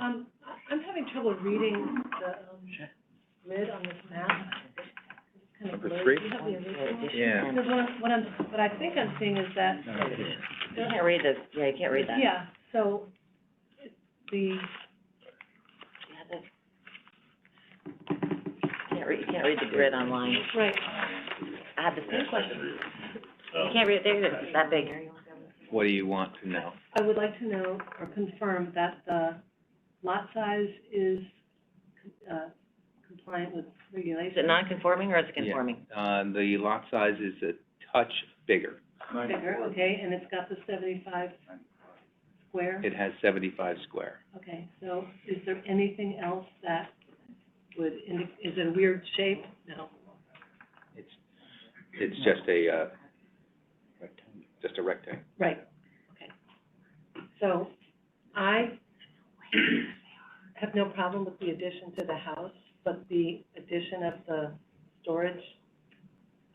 Um, I- I'm having trouble reading the um, grid on this map. It's kind of Number blurry. three? Do you have the Oh, original? Yeah. Because what, what I'm, what I think I'm seeing is that. You can't read this, yeah, you can't read that. Yeah, so the, Yeah, that's- You can't read, you can't read the grid online. right, I had the same question. You can't read, there, it is. it's that big. What do you want to know? I would like to know or confirm that the lot size is, uh, compliant with Is it regulations. non-conforming or is it Yeah. conforming? Uh, the lot size is a touch bigger. Bigger, okay, and it's got the seventy-five square? It has seventy-five square. Okay, so is there anything else that would indi- is it a weird shape? No. It's, it's just a, uh, just a rectangle. Right, okay. So I have no problem with the addition to the house, but the addition of the storage,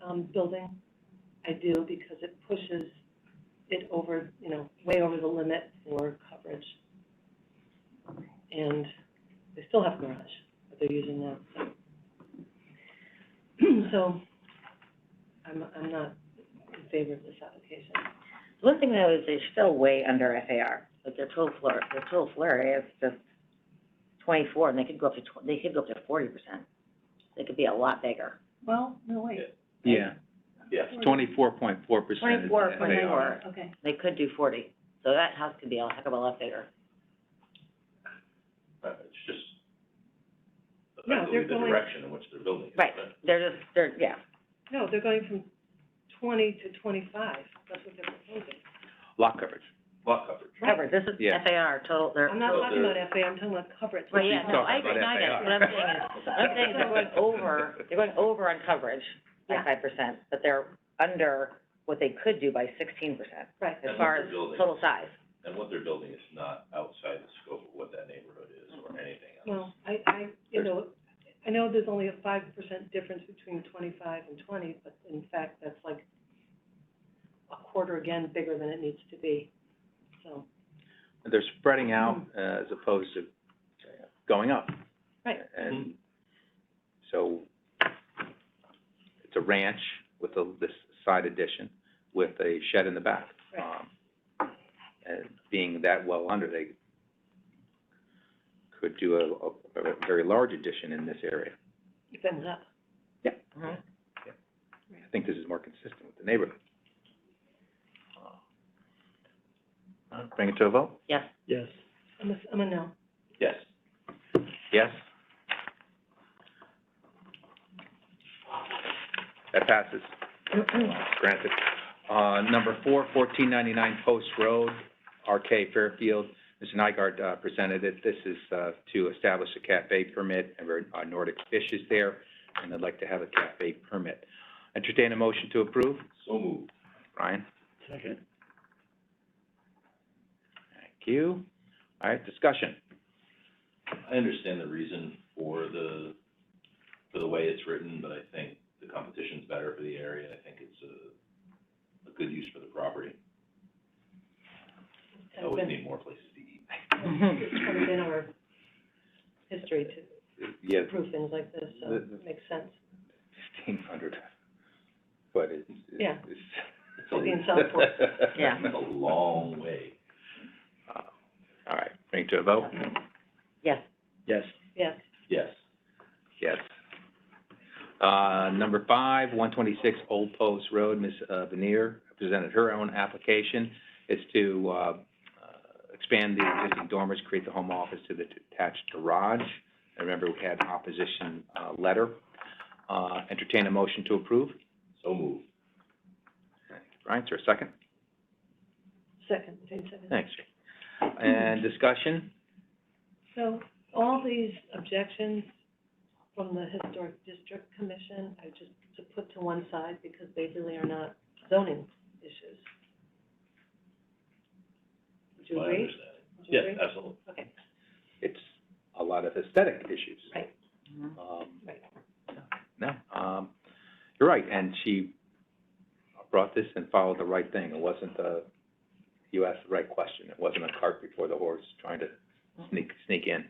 um, building, I do because it pushes it over, you know, way over the limit for coverage. And they still have garage that they're using now, so. So I'm, I'm not in favor of this application. One thing though is they're still way under FAR. Like their total floor, their total floor area is just twenty-four and they could go up to tw- they could go up to forty percent. They could be a lot bigger. Well, no, wait. Yeah. Yes. Twenty-four point four percent is 24.4. Okay, They could do forty. So that house could be a heck of a lot bigger. Uh, It's just No, they're effectively the going- direction in which they're building it. Right. They're just, they're, yeah. no, they're going from twenty to twenty-five, that's what they're proposing. Lot coverage. Lot coverage. Covered, this is Yeah. FAR, total, they're, I'm not Well, talking about they're- FA, I'm talking about coverage. Well, yeah, She's no, I talking agree, about I get it. FAR. What I'm saying is, what I'm saying is they're going over, they're going over on coverage by Yeah. five percent, but they're under what they could do by sixteen percent Right, as And what far as they're building. total size. And what they're building is not outside the scope of what that neighborhood is Mm-hmm. or anything else. well, I, I, you know, I know there's only a five percent difference between twenty-five and twenty, but in fact, that's like a quarter again bigger than it needs to be, so, They're spreading out, uh, as opposed to going up. Mm-hmm. Right. And so it's a ranch with a, this side addition with a shed in the back. Right. Um, And being that well under, they could do a, a, a very large addition in this area. it ends up. Mhm. I think this is more consistent with the neighborhood. Uh, Bring it to a vote? Yes, Yes. I'm a, I'm a no. Yes. Yes? That passes. Granted. Uh, number four, fourteen ninety-nine Post Road, RK Fairfield. Mr. Nygaard, uh, presented it. This is, uh, to establish a cafe permit, and we're, uh, Nordic Fish is there, and I'd like to have a cafe permit. Entertain a motion to approve? So moved. Brian? Second. Thank you. All right, discussion. I understand the reason for the, for the way it's written, but I think the competition's better for the area. I think it's a, a good use for the property. I It's Always been- Oh, need more places to eat. It's kind of been our history to Yeah, approve things like this, so The- the- it makes sense. fifteen hundred, but it's, it's. Yeah. It's It's being a, sold for. Yeah. it's a long way. Uh, All right, bring it to a vote? yes, Yes. Yes, Yes. Yes. Uh, number five, one twenty-six Old Post Road, Ms. uh, Veneer presented her own application. It's to, uh, uh, expand the existing dormers, create the home office to the detached garage. I remember we had an opposition, uh, letter. Uh, entertain a motion to approve. So moved. Brian, is there a second? second, same second. Thanks. And discussion? So all these objections from the Historic District Commission, I just to put to one side because they really are not zoning issues. Would you My agree? understanding. Would you Yes, agree? absolutely. Okay, it's a lot of aesthetic issues. Right. Um, Right. no, um, you're right, and she brought this and followed the right thing. It wasn't a, you asked the right question. It wasn't a cart before the horse trying to sneak, sneak in.